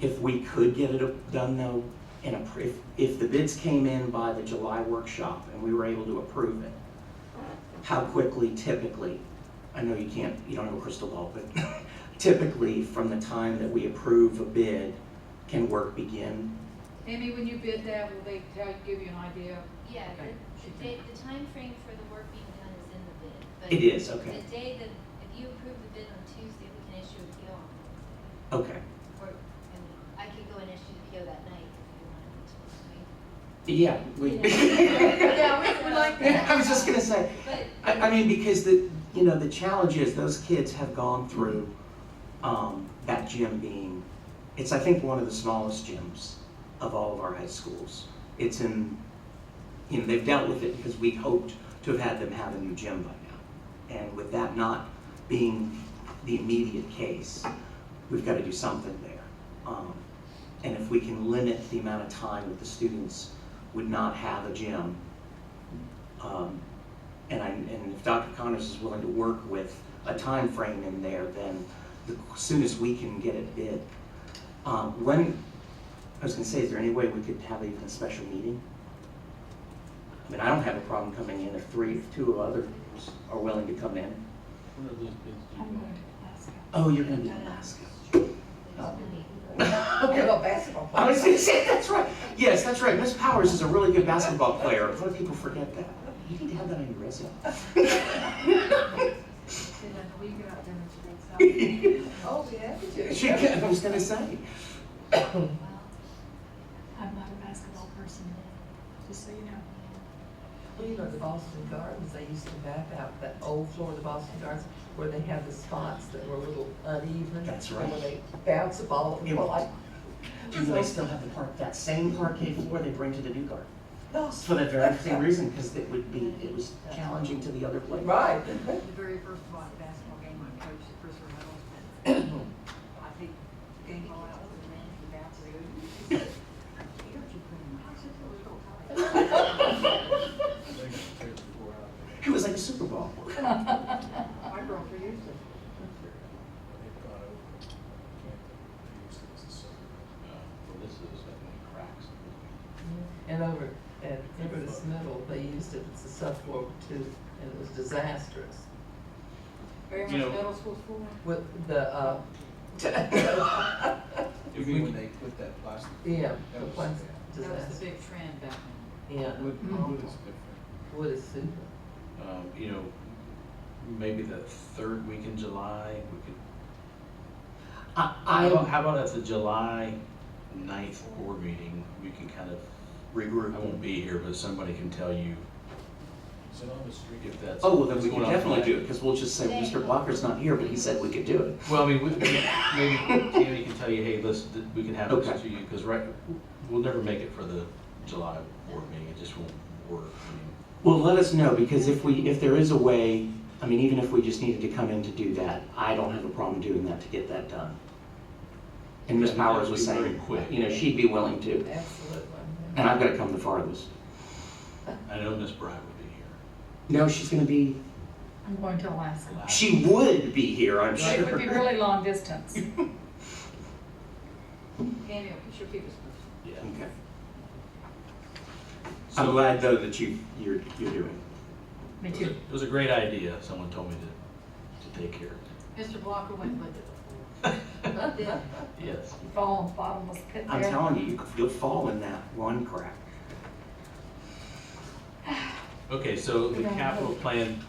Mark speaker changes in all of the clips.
Speaker 1: If we could get it done though, in a, pr- if, if the bids came in by the July workshop and we were able to approve it, how quickly typically, I know you can't, you don't have a crystal ball, but typically from the time that we approve a bid, can work begin?
Speaker 2: Amy, when you bid that, will they tell, give you an idea?
Speaker 3: Yeah, the,
Speaker 2: Okay.
Speaker 3: the date, the timeframe for the work being done is in the bid, but.
Speaker 1: It is, okay,
Speaker 3: The day that, if you approve the bid on Tuesday, we can issue a PO on Wednesday.
Speaker 1: okay.
Speaker 3: Or, I mean, I could go and issue the PO that night if you wanted me to, right?
Speaker 1: Yeah, we.
Speaker 3: Yeah, we- we like that.
Speaker 1: I was just gonna say,
Speaker 3: But,
Speaker 1: I, I mean, because the, you know, the challenge is those kids have gone through, um, that gym being, it's, I think, one of the smallest gyms of all of our high schools. It's in, you know, they've dealt with it because we hoped to have had them have a new gym by now. And with that not being the immediate case, we've gotta do something there. Um, and if we can limit the amount of time that the students would not have a gym, um, and I, and if Dr. Connors is willing to work with a time frame in there, then the soonest we can get it bid. Um, when, I was gonna say, is there any way we could have even a special meeting? I mean, I don't have a problem coming in if three, if two others are willing to come in.
Speaker 4: One of those bids do
Speaker 5: I'm going
Speaker 4: go.
Speaker 5: to Alaska.
Speaker 1: Oh, you're gonna be in Alaska.
Speaker 3: there's no need.
Speaker 1: Okay.
Speaker 6: basketball
Speaker 1: I was gonna say, that's right. Yes, that's right. Miss Powers is a really good basketball player. A lot of people forget that. You need to have that on your resume.
Speaker 6: Oh, we have to.
Speaker 1: She, I was gonna say.
Speaker 3: Well,
Speaker 5: I'm not a basketball person, just so you know.
Speaker 6: Well, you know, the Boston Gardens, they used to map out that old floor of the Boston Gardens where they had the spots that were a little uneven.
Speaker 1: That's
Speaker 6: and
Speaker 1: right.
Speaker 6: Where they bounce a ball, and
Speaker 1: It-
Speaker 6: well, like,
Speaker 1: Do they still have the park, that same parquet floor they bring to the new garden?
Speaker 6: no,
Speaker 1: For that very same reason, because it would be, it was challenging to the other place.
Speaker 6: right.
Speaker 7: The very first bo- basketball game I coached, Chris Reynolds, and I think the game ball out with the man in the bathroom. He said, "Peter, you couldn't match it, it was so tight."
Speaker 4: I think it's three or four out there.
Speaker 1: It was like a Super Bowl.
Speaker 7: My girlfriend used to.
Speaker 4: They've gone over. I can't think. They used it as a summer.
Speaker 8: uh,
Speaker 4: Well, this is, I think, cracks.
Speaker 6: And over at Impetus Middle, they used it as a subfloor too, and it was disastrous.
Speaker 2: Very
Speaker 4: You
Speaker 2: much
Speaker 4: know-
Speaker 2: middle school school?
Speaker 6: With the, uh,
Speaker 4: You mean when they put that plastic?
Speaker 6: yeah,
Speaker 4: That
Speaker 6: the
Speaker 4: was
Speaker 6: place,
Speaker 2: That was the
Speaker 6: disaster,
Speaker 2: big trend back then.
Speaker 6: yeah.
Speaker 4: Wood, wood is different.
Speaker 6: Wood is super.
Speaker 8: um, you know, maybe the third week in July, we could.
Speaker 1: I,
Speaker 8: How about,
Speaker 1: I
Speaker 8: how about at the July ninth board meeting, we can kind of, I won't
Speaker 1: regroup.
Speaker 8: be here, but somebody can tell you
Speaker 4: Is it on the street?
Speaker 8: if that's.
Speaker 1: Oh, well, then
Speaker 8: what's
Speaker 1: we can
Speaker 8: going on
Speaker 1: definitely
Speaker 8: tonight.
Speaker 1: do it, because we'll just say, Mr. Blocker's not here, but he said we could do it.
Speaker 8: Well, I mean, we, we- maybe Tammy can tell you, hey, listen, th- we can have
Speaker 1: Okay.
Speaker 8: this to you, because right, we'll never make it for the July board meeting, it just won't work. I mean,
Speaker 1: Well, let us know, because if we, if there is a way, I mean, even if we just needed to come in to do that, I don't have a problem doing that to get that done. And Ms.
Speaker 8: Yeah,
Speaker 1: Powers was
Speaker 8: that'd be
Speaker 1: saying,
Speaker 8: very quick.
Speaker 1: you know, she'd be willing to,
Speaker 6: Absolutely.
Speaker 1: and I've gotta come the farthest.
Speaker 8: I know Miss Bryant would be here.
Speaker 1: No, she's gonna be,
Speaker 5: I'm going to Alaska.
Speaker 8: Last-
Speaker 1: she would be here, I'm sure.
Speaker 5: It would be really long distance.
Speaker 2: Amy, I'm sure people. spoke.
Speaker 8: Yeah.
Speaker 1: Okay. I'm
Speaker 8: Hmm. So,
Speaker 1: glad though that you, you're, you're doing.
Speaker 5: Me
Speaker 8: it was a-
Speaker 5: too.
Speaker 8: it was a great idea, someone told me to, to take care of it.
Speaker 2: Mr. Blocker went with it.
Speaker 8: Yes.
Speaker 5: Fall, bottomless pit
Speaker 1: I'm
Speaker 5: there.
Speaker 1: telling you, you- you'll fall in that one crack.
Speaker 8: Okay, so the
Speaker 5: Yeah.
Speaker 8: capital plan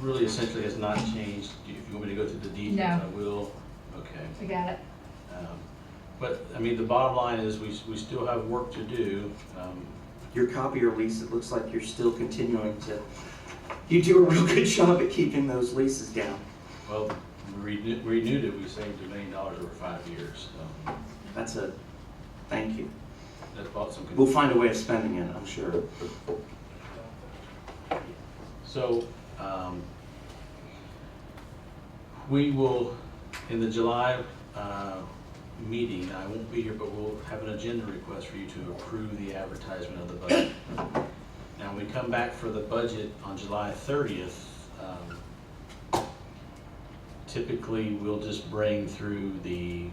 Speaker 8: really essentially has not changed. Do you- If you want me to go through the details,
Speaker 5: No.
Speaker 8: I will. Okay.
Speaker 5: We got it.
Speaker 8: Um, But, I mean, the bottom line is we, we still have work to do. Um,
Speaker 1: Your copier lease, it looks like you're still continuing to, you do a real good job at keeping those leases down.
Speaker 8: Well, we renew- renewed it, we saved a million dollars over five years. so
Speaker 1: That's a, thank you.
Speaker 8: That bought some.
Speaker 1: We'll find a way of spending it, I'm sure.
Speaker 8: So, um, we will, in the July, uh, meeting, I won't be here, but we'll have an agenda request for you to approve the advertisement of the budget. Now, when we come back for the budget on July thirtieth, um, typically, we'll just bring through the